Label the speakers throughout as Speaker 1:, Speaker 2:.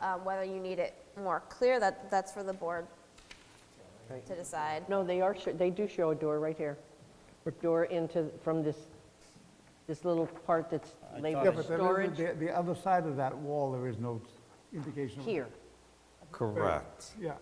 Speaker 1: Um, Whether you need it more clear, that, that's for the board to decide.
Speaker 2: No, they are, sho- they do show a door right here. Door into, from this, this little part that's
Speaker 3: Yeah,
Speaker 2: labeled
Speaker 3: but there
Speaker 2: storage
Speaker 3: is, the, the other side of that wall, there is no indication. of-
Speaker 2: here.
Speaker 4: Correct.
Speaker 3: Yeah,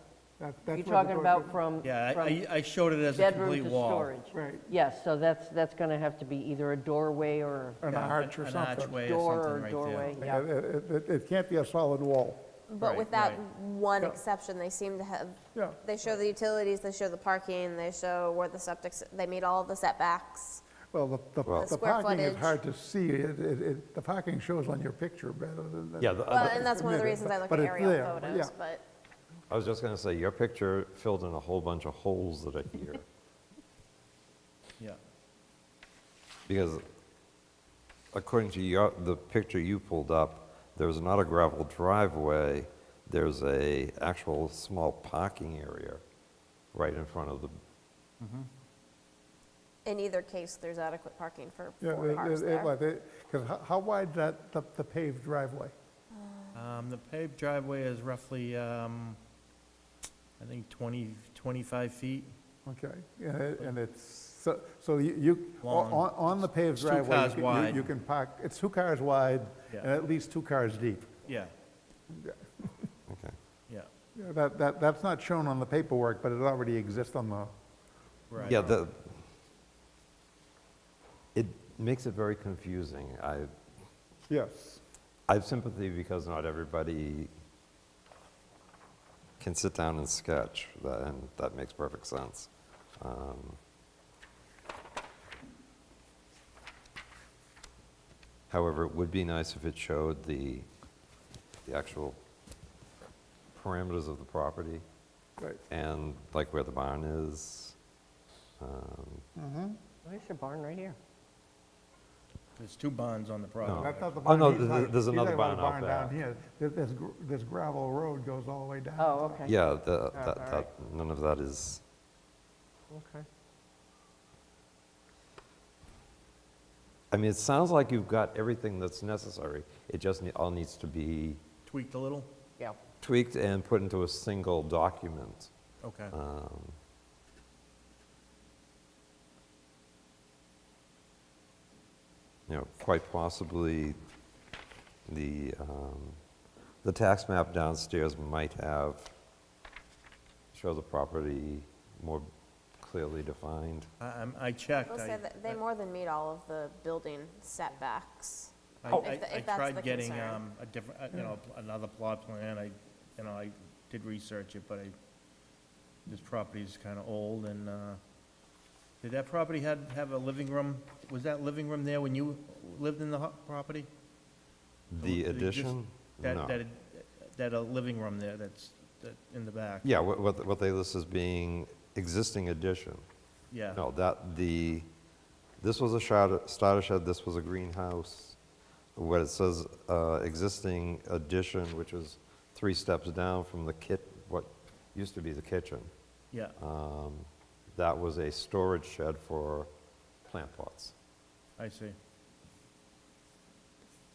Speaker 3: that, that's.
Speaker 2: You're
Speaker 3: where the
Speaker 2: talking
Speaker 3: door-
Speaker 2: about from,
Speaker 5: Yeah, I-
Speaker 2: from
Speaker 5: I, I showed it as a
Speaker 2: bedroom
Speaker 5: complete
Speaker 2: to
Speaker 5: wall.
Speaker 2: storage.
Speaker 3: Right.
Speaker 2: Yes, so that's, that's going to have to be either a doorway or
Speaker 3: An
Speaker 5: Yeah,
Speaker 3: arch or something.
Speaker 5: An archway or
Speaker 2: door
Speaker 5: something
Speaker 2: or
Speaker 5: right
Speaker 2: doorway,
Speaker 5: there.
Speaker 3: Yeah,
Speaker 2: yeah.
Speaker 3: It, it- it- it can't be a solid wall.
Speaker 1: But
Speaker 5: Right,
Speaker 1: with that
Speaker 5: right.
Speaker 1: one
Speaker 3: Yeah.
Speaker 1: exception, they seem to have,
Speaker 3: Yeah.
Speaker 1: they show the utilities, they show the parking, they show where the septic, s- they meet all of the setbacks.
Speaker 5: Uh,
Speaker 3: Well, the-
Speaker 4: Well-
Speaker 3: the,
Speaker 4: The
Speaker 3: the
Speaker 1: square
Speaker 3: parking is
Speaker 1: footage.
Speaker 3: hard to see. It, it, it- the parking shows on your picture rather than. the-
Speaker 4: Yeah, the
Speaker 1: Well,
Speaker 4: other-
Speaker 1: and that's one of the
Speaker 3: But-
Speaker 1: reasons I look at
Speaker 3: but it's
Speaker 1: aerial
Speaker 3: there,
Speaker 1: photos,
Speaker 3: yeah.
Speaker 1: but
Speaker 4: I was just going to say, your picture filled in a whole bunch of holes that are here,
Speaker 5: Yeah.
Speaker 4: because according to your, the picture you pulled up, there's not a gravel driveway, there's a actual small parking area right in front of the,
Speaker 1: in either case, there's adequate parking for
Speaker 3: Yeah,
Speaker 1: four cars there.
Speaker 3: because how, how wide that, the the paved driveway?
Speaker 5: Um, The paved driveway is roughly, um, I think 20, 25 feet.
Speaker 3: Okay, and it- and it's, so, so you- you, o-
Speaker 5: Long.
Speaker 3: on, on the paved
Speaker 5: It's two
Speaker 3: driveway. you
Speaker 5: cars
Speaker 3: can- you-
Speaker 5: wide.
Speaker 3: You can park, it's two cars wide and
Speaker 5: Yeah.
Speaker 3: at least two cars deep.
Speaker 5: Yeah,
Speaker 4: okay.
Speaker 5: yeah,
Speaker 3: Yeah, That, that, that's not shown on the paperwork, but it already exists on the,
Speaker 5: right.
Speaker 4: Yeah, the, it makes it very confusing. I,
Speaker 3: yes.
Speaker 4: I have sympathy because not everybody can sit down and sketch, tha- and that makes perfect sense. Um, However, it would be nice if it showed the, the actual parameters of the property
Speaker 3: Right.
Speaker 4: and like where the barn is. Um,
Speaker 2: There's your barn right here.
Speaker 5: There's two bonds on the property.
Speaker 3: That's not the
Speaker 4: Oh,
Speaker 3: barn.
Speaker 4: no,
Speaker 3: He's
Speaker 4: th-
Speaker 3: talking- he's
Speaker 4: there's
Speaker 3: talking
Speaker 4: another
Speaker 3: about
Speaker 4: barn out
Speaker 3: the Barn down
Speaker 4: back.
Speaker 3: here. Th- This, gr- this gravel road goes all the way down.
Speaker 2: Oh, okay.
Speaker 4: Yeah, the-
Speaker 2: Yeah,
Speaker 4: that,
Speaker 2: all
Speaker 4: that, none of that is,
Speaker 2: Okay.
Speaker 4: I mean, it sounds like you've got everything that's necessary. It just ne- all needs to be
Speaker 5: Tweaked a little?
Speaker 2: Yeah.
Speaker 4: tweaked and put into a single document.
Speaker 5: Okay.
Speaker 4: Um, You know, quite possibly, the, um, the tax map downstairs might have, show the property more clearly defined.
Speaker 5: I, I'm- I checked.
Speaker 1: They'll
Speaker 5: I-
Speaker 1: say that they
Speaker 5: I-
Speaker 1: more than meet all of the building setbacks.
Speaker 5: I-
Speaker 1: Oh.
Speaker 5: I
Speaker 1: If the-
Speaker 5: I
Speaker 1: if that's the
Speaker 5: tried getting
Speaker 1: concern. Mm.
Speaker 5: um, a different, uh, you know, pl- another plot plan, I, you know, I did research it, but I, this property's kind of old, and, uh, did that property had, have a living room? Was that living room there when you lived in the hu- property?
Speaker 4: The
Speaker 5: Did it just-
Speaker 4: addition?
Speaker 5: That,
Speaker 4: No.
Speaker 5: that, that a living room there that's, that, in the back?
Speaker 4: Yeah, what- what, what they list as being existing addition.
Speaker 5: Yeah.
Speaker 4: No, that, the, this was a starter starter shed, this was a greenhouse. What it says, uh, existing addition, which is three steps down from the kit, what used to be the kitchen,
Speaker 5: Yeah,
Speaker 4: um, that was a storage shed for plant pots.
Speaker 5: I see.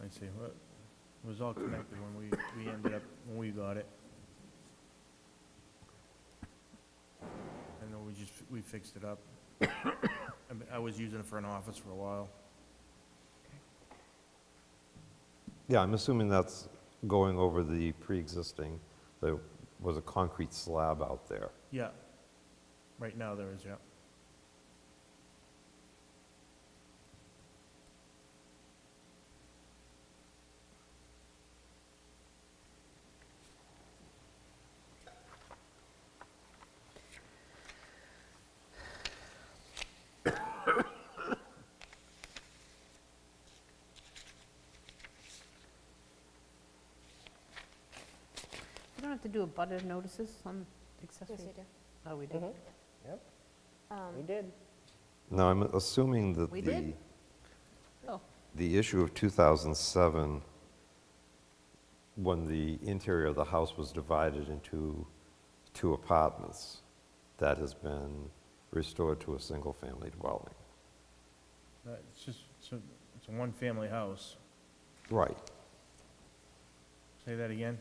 Speaker 5: I see. Well, It was all connected when we, we ended up, when we got it. And then we just, we fixed it up. I mean, I was using it for an office for a while.
Speaker 4: Yeah, I'm assuming that's going over the pre-existing, there was a concrete slab out there.
Speaker 5: Yeah. Right now there is, yeah.
Speaker 6: You don't have to do a butter notices on accessory? Oh, we do?
Speaker 2: Yep. We did.
Speaker 4: Now, I'm assuming that
Speaker 6: We
Speaker 4: the,
Speaker 6: did. Oh,
Speaker 4: the issue of 2007, when the interior of the house was divided into two apartments, that has been restored to a single-family dwelling.
Speaker 5: Uh, It's just, it's a, it's a one-family house.
Speaker 4: Right.
Speaker 5: Say that again?